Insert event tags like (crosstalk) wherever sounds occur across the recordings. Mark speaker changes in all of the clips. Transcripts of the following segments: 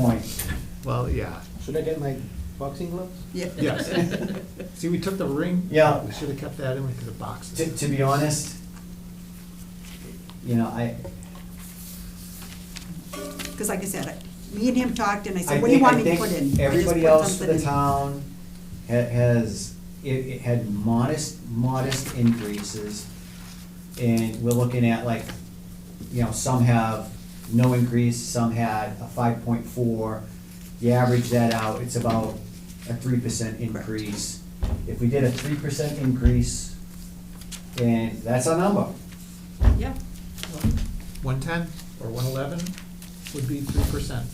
Speaker 1: point.
Speaker 2: Well, yeah,
Speaker 3: Should I get my boxing gloves?
Speaker 1: (laughs)
Speaker 2: yes. See, we took the ring.
Speaker 1: Yeah.
Speaker 2: We should have kept that in because the box
Speaker 1: To,
Speaker 2: is.
Speaker 1: to be honest, you know, I,
Speaker 4: Because like I said, I- me and him talked and I
Speaker 1: I
Speaker 4: said, what do you
Speaker 1: think-
Speaker 4: want
Speaker 1: I
Speaker 4: me to
Speaker 1: think
Speaker 4: put in? I just
Speaker 1: Everybody
Speaker 4: put
Speaker 1: else for
Speaker 4: something
Speaker 1: the
Speaker 4: in.
Speaker 1: town ha- has, it, it had modest, modest increases. And we're looking at like, you know, some have no increase, some had a five point four. You average that out, it's about a three percent increase. If we did a three percent increase, and that's our number.
Speaker 4: Yeah,
Speaker 2: One ten or one eleven would be three percent.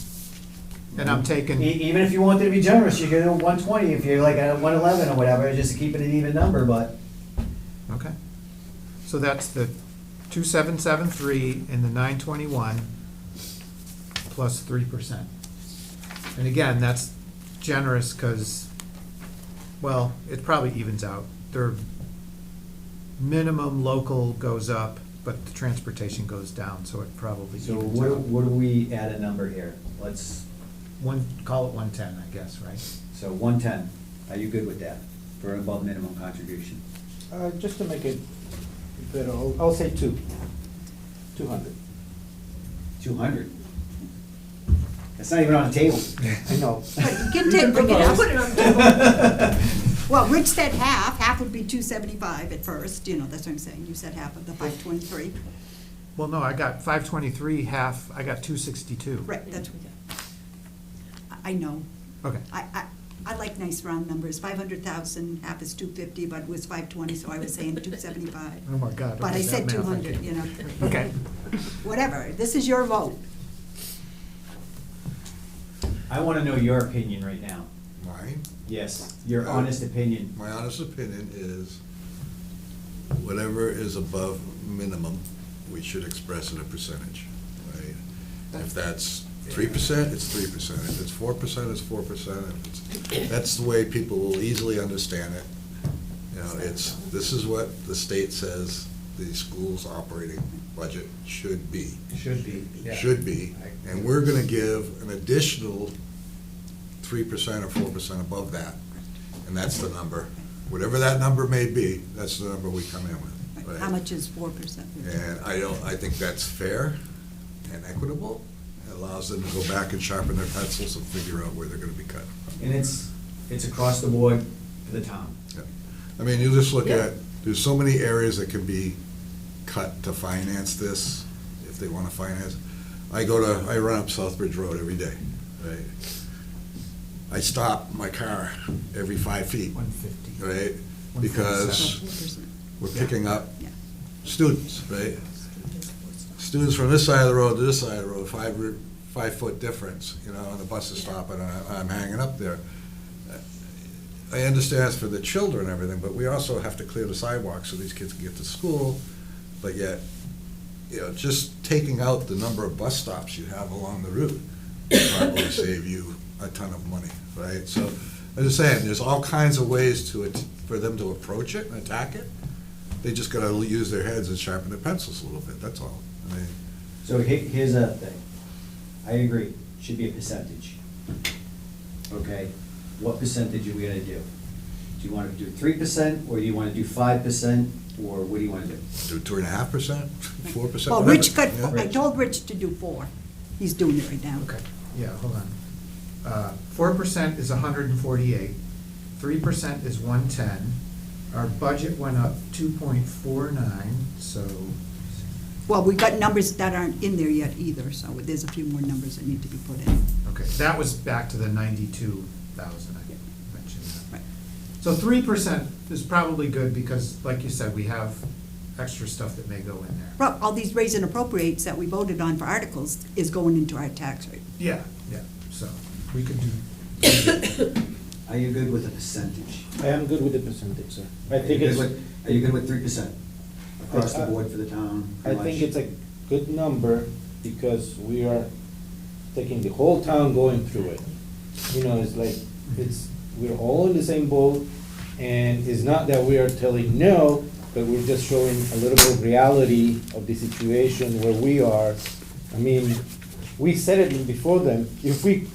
Speaker 2: And I'm taking.
Speaker 1: E- even if you wanted to be generous, you could do one twenty, if you're like at one eleven or whatever, just to keep it an even number, but.
Speaker 2: Okay. So that's the two seven seven three and the nine twenty-one plus three percent. And again, that's generous because, well, it probably evens out. Their minimum local goes up, but the transportation goes down, so it probably
Speaker 1: So
Speaker 2: evens
Speaker 1: what,
Speaker 2: out.
Speaker 1: what do we add a number here? Let's,
Speaker 2: One, call it one-ten, I guess, right?
Speaker 1: so one ten, are you good with that for above minimum contribution?
Speaker 3: Uh, just to make it better, I'll, I'll say two. Two hundred.
Speaker 1: Two hundred? That's not even on the table.
Speaker 3: I know.
Speaker 4: but you can take, bring it up.
Speaker 5: Put it on the table.
Speaker 4: Well, Rich said half, half would be two seventy-five at first, you know, that's what I'm saying, you said half of the five twenty-three,
Speaker 2: Well, no, I got five twenty-three, half, I got two sixty-two.
Speaker 4: right, that's, I- I know.
Speaker 2: Okay,
Speaker 4: I, I, I like nice round numbers, five hundred thousand, half is two fifty, but it was five twenty, so I was saying two seventy-five.
Speaker 2: oh my God.
Speaker 4: But
Speaker 2: okay,
Speaker 4: I
Speaker 2: that
Speaker 4: said
Speaker 2: math,
Speaker 4: two hundred,
Speaker 2: can't-
Speaker 4: you know.
Speaker 2: Okay.
Speaker 4: Whatever, this is your vote.
Speaker 1: (laughs) I wanna know your opinion right now.
Speaker 6: Mine,
Speaker 1: Yes, your honest opinion.
Speaker 6: my honest opinion is whatever is above minimum, we should express in a percentage, right? If that's three percent, it's three percent. If it's four percent, it's four percent. That's the way people will easily understand it. You know, it's, this is what the state says the school's operating budget should be.
Speaker 1: Should be,
Speaker 6: should be, and we're gonna give an additional three percent or four percent above that, and that's the number. Whatever that number may be, that's the number we come in with. right?
Speaker 4: How much is four percent?
Speaker 6: And I don't, I think that's fair and equitable. It allows them to go back and sharpen their pencils and figure out where they're gonna be cut.
Speaker 1: And it's, it's across the board for the town.
Speaker 6: I mean, you just look
Speaker 5: Yeah.
Speaker 6: at, there's so many areas that can be cut to finance this, if they wanna finance. I go to, I run up Southbridge Road every day, right? I stop my car every five feet,
Speaker 2: One fifty.
Speaker 6: right? Because we're picking up
Speaker 4: Yeah.
Speaker 6: students, right? Students from this side of the road to this side of the road, five, re- five-foot difference, you know, and the bus is stopping, and I- I'm hanging up there. I understand it's for the children and everything, but we also have to clear the sidewalk so these kids can get to school, but yet, you know, just taking out the number of bus stops you have along the route would probably save you a ton of money, right? So, I'm just saying, there's all kinds of ways to, it for them to approach it and attack it. They just gotta use their heads and sharpen their pencils a little bit, that's all. I mean,
Speaker 1: So he- here's a thing. I agree, should be a percentage. Okay, what percentage are we gonna do? Do you wanna do three percent, or do you wanna do five percent, or what do you wanna do?
Speaker 6: do two and a half percent, four percent,
Speaker 4: Well,
Speaker 6: whatever.
Speaker 4: Rich got,
Speaker 6: yeah.
Speaker 4: I told Rich to do four, he's doing it right now.
Speaker 2: Okay, yeah, hold on. Four percent is hundred and forty-eight, three percent is one-ten. Our budget went up two point four nine, so,
Speaker 4: Well, we got numbers that aren't in there yet either, so there's a few more numbers that need to be put in.
Speaker 2: okay, that was back to the ninety-two thousand, I mentioned that.
Speaker 4: Right.
Speaker 2: So three percent is probably good because, like you said, we have extra stuff that may go in there.
Speaker 4: Well, all these raise and appropriates that we voted on for articles is going into our tax rate.
Speaker 2: Yeah, yeah, so we could do,
Speaker 1: Are you good with a percentage?
Speaker 3: (laughs) I am good with the percentage, sir. I
Speaker 1: Are you
Speaker 3: think
Speaker 1: good
Speaker 3: it's,
Speaker 1: with- Are you good with three percent across the board for the town?
Speaker 3: I think it's a good number because we are taking the whole town going through it. You know, it's like, it's, we're all in the same boat and it's not that we are telling no, but we're just showing a little bit of reality of the situation where we are. I mean, we said it before them, if we